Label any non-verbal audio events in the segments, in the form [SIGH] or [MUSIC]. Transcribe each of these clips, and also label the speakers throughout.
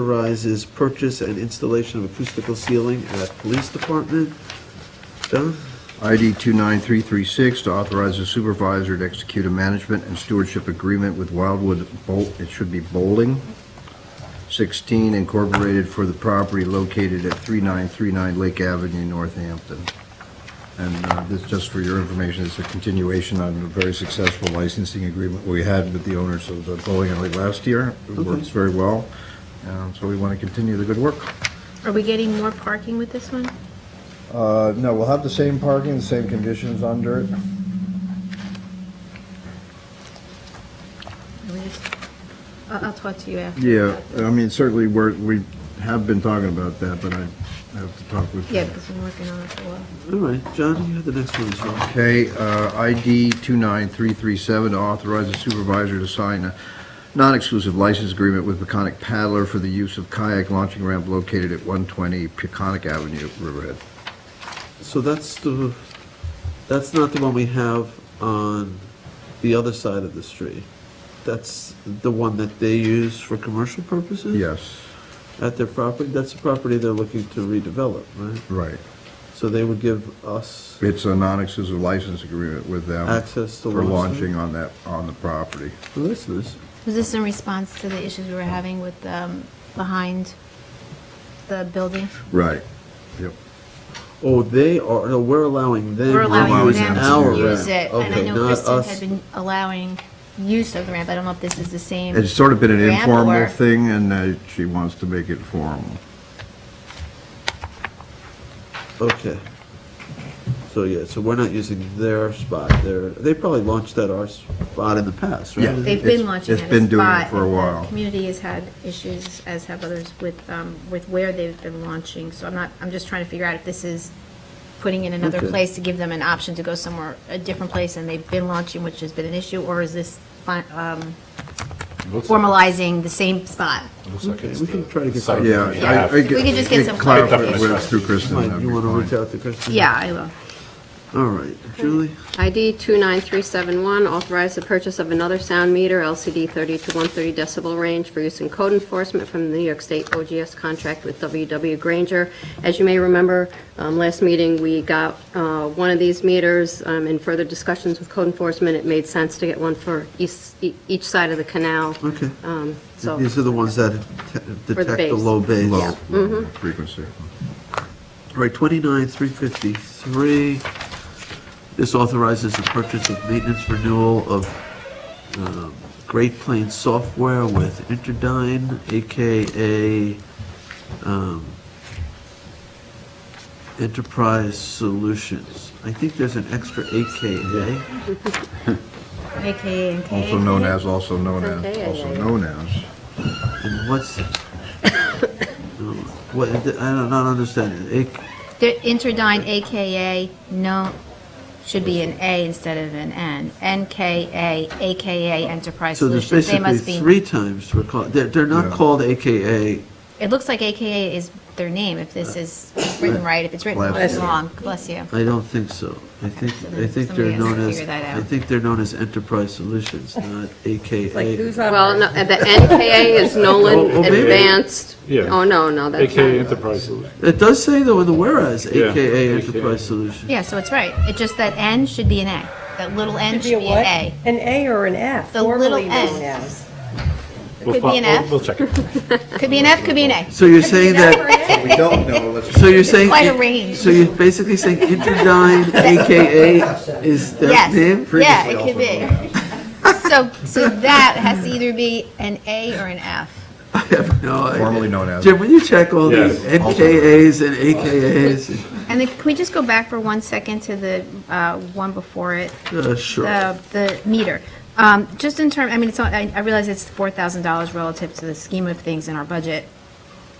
Speaker 1: authorizes purchase and installation of acoustical ceiling at police department. John?
Speaker 2: ID 293336 to authorize the supervisor to execute a management and stewardship agreement with Wildwood Bolt, it should be Bowling, 16 Incorporated for the property located at 3939 Lake Avenue, Northampton. And uh, this, just for your information, is a continuation on a very successful licensing agreement we had with the owners of the bowling alley last year. It works very well, and so we want to continue the good work.
Speaker 3: Are we getting more parking with this one?
Speaker 2: Uh, No, we'll have the same parking, the same conditions under it.
Speaker 3: Are we just- I'll I'll talk to you after.
Speaker 2: Yeah, I mean, certainly, we're, we have been talking about that, but I have to talk with.
Speaker 3: Yeah, because we're working on it for a while.
Speaker 1: All right, John, you had the next one as well.
Speaker 2: Okay, uh, ID 29337 to authorize the supervisor to sign a non-exclusive license agreement with Peconic Paddler for the use of kayak launching ramp located at 120 Peconic Avenue, Riverhead.
Speaker 1: So that's the, that's not the one we have on the other side of the street. That's the one that they use for commercial purposes?
Speaker 2: Yes,
Speaker 1: At their property, that's the property they're looking to redevelop, right?
Speaker 2: right.
Speaker 1: So they would give us
Speaker 2: It's a non-exclusive license agreement with them.
Speaker 1: access to
Speaker 2: For
Speaker 1: launch.
Speaker 2: launching on that, on the property.
Speaker 1: Well, that's nice.
Speaker 3: Was this in response to the issues we were having with, um, behind the building?
Speaker 2: Right. Yep.
Speaker 1: Oh, they are, no, we're allowing them.
Speaker 3: We're allowing
Speaker 2: allowing
Speaker 3: them
Speaker 1: our
Speaker 3: to use it,
Speaker 1: ramp.
Speaker 3: and I
Speaker 1: Okay,
Speaker 3: know
Speaker 1: not
Speaker 3: Kristen
Speaker 1: us.
Speaker 3: had been allowing use of the ramp, I don't know if this is the same.
Speaker 2: It's sort of been an
Speaker 3: Ramp
Speaker 2: informal
Speaker 3: or-
Speaker 2: thing, and uh, she wants to make it formal.
Speaker 1: Okay. So, yeah, so we're not using their spot, their, they probably launched at our spot in the past, right?
Speaker 2: Yeah.
Speaker 3: They've
Speaker 2: It's-
Speaker 3: been launching
Speaker 2: it's
Speaker 3: at a spot.
Speaker 2: been doing it for a
Speaker 3: and the
Speaker 2: while.
Speaker 3: Community has had issues, as have others, with, um, with where they've been launching, so I'm not, I'm just trying to figure out if this is putting in another
Speaker 1: Okay.
Speaker 3: place to give them an option to go somewhere, a different place, and they've been launching, which has been an issue, or is this fi- um, formalizing the same spot?
Speaker 1: Okay, we can try to get
Speaker 4: Site.
Speaker 1: that.
Speaker 2: Yeah.
Speaker 4: Yeah.
Speaker 2: I- I
Speaker 3: We could just get some
Speaker 2: clarified
Speaker 4: clarification.
Speaker 2: with- Through Kristen.
Speaker 1: Mike,
Speaker 2: that'd
Speaker 1: you
Speaker 2: be
Speaker 1: want to
Speaker 2: fine.
Speaker 1: reach out to Kristen?
Speaker 3: Yeah, I will.
Speaker 1: All right, Julie?
Speaker 5: ID 29371, authorize the purchase of another sound meter, LCD 30 to 130 decibel range for use in code enforcement from the New York State OGS contract with WW Granger. As you may remember, um, last meeting, we got uh, one of these meters. Um, In further discussions with code enforcement, it made sense to get one for east- e- each side of the canal.
Speaker 1: Okay.
Speaker 5: Um, So
Speaker 1: These are the ones that te- detect the
Speaker 5: base.
Speaker 1: low base.
Speaker 2: Low, low
Speaker 3: Mm-hmm.
Speaker 2: frequency.
Speaker 1: Right, 29, 353. This authorizes the purchase of maintenance renewal of um, Great Plains software with Interdyne, AKA um, Enterprise Solutions. I think there's an extra AKA.
Speaker 3: AKA and KA.
Speaker 2: Also known as, also known as,
Speaker 5: Okay,
Speaker 2: also
Speaker 5: yeah, yeah.
Speaker 2: known as.
Speaker 1: And what's, [COUGHS] No, what, I don't not understand. it. A-
Speaker 3: The Interdyne AKA, no, should be an A instead of an N. NKA, AKA Enterprise
Speaker 1: So there's
Speaker 3: Solutions. They
Speaker 1: basically
Speaker 3: must be,
Speaker 1: three times we're called, they're, they're not
Speaker 2: Yeah.
Speaker 1: called AKA,
Speaker 3: it looks like AKA is their name, if this is written right, if it's written
Speaker 2: Bless
Speaker 3: right, it's
Speaker 2: you.
Speaker 3: long. Bless you.
Speaker 1: I don't think so. I think,
Speaker 3: so
Speaker 1: I
Speaker 3: then
Speaker 1: think
Speaker 3: somebody
Speaker 1: they're
Speaker 3: has to
Speaker 1: known as,
Speaker 3: figure that
Speaker 1: I
Speaker 3: out.
Speaker 1: think they're known as Enterprise
Speaker 3: [LAUGHS]
Speaker 1: Solutions, not AKA.
Speaker 5: Well, no, the NKA is
Speaker 4: [LAUGHS]
Speaker 5: Nolan
Speaker 4: Oh, oh, maybe.
Speaker 5: Advanced.
Speaker 4: Yeah.
Speaker 5: Oh, no, no, that's
Speaker 4: AKA
Speaker 5: not.
Speaker 4: Enterprise Solutions.
Speaker 1: It does say though in the whereas,
Speaker 4: Yeah,
Speaker 1: AKA
Speaker 4: AKA.
Speaker 1: Enterprise Solutions.
Speaker 3: Yeah, so it's right. It's just that N should be an A. That little N should be an A.
Speaker 6: An A or an F,
Speaker 3: The little
Speaker 6: formerly known
Speaker 3: N.
Speaker 6: as.
Speaker 4: We'll
Speaker 3: Could
Speaker 4: fi-
Speaker 3: be an
Speaker 4: we'll-
Speaker 3: F.
Speaker 4: We'll check it.
Speaker 3: Could be an F, could be an A.
Speaker 1: So you're saying that,
Speaker 2: We don't know, let's.
Speaker 1: so you're saying.
Speaker 3: quite a range.
Speaker 1: So you're basically saying
Speaker 3: [LAUGHS]
Speaker 1: Interdyne, AKA is their
Speaker 3: Yes.
Speaker 1: name?
Speaker 3: Yeah,
Speaker 2: Previously
Speaker 3: it
Speaker 2: also
Speaker 3: could be. [LAUGHS] So, so that has to either be an A or an F.
Speaker 1: I have no idea.
Speaker 2: Formerly known as.
Speaker 1: Jim, will you check all these
Speaker 4: Yes.
Speaker 1: NKAs and AKAs?
Speaker 3: And then, can we just go back for one second to the uh, one before it,
Speaker 1: Uh, Sure.
Speaker 3: the, the meter? Um, Just in term, I mean, it's, not- I I realize it's $4,000 relative to the scheme of things in our budget.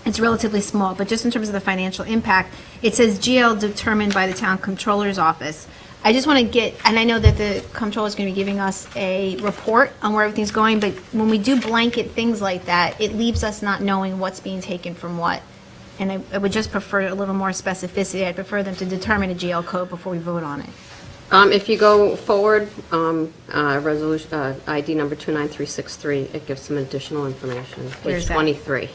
Speaker 3: It's relatively small, but just in terms of the financial impact, it says GL determined by the town comptroller's office. I just want to get, and I know that the comptroller's going to be giving us a report on where everything's going, but when we do blanket things like that, it leaves us not knowing what's being taken from what. And I, I would just prefer a little more specificity. I'd prefer them to determine a GL code before we vote on it.
Speaker 5: Um, If you go forward, um, uh, resolution, uh, ID number 29363, it gives some additional information,
Speaker 3: Where's
Speaker 5: page
Speaker 3: that?
Speaker 5: 23.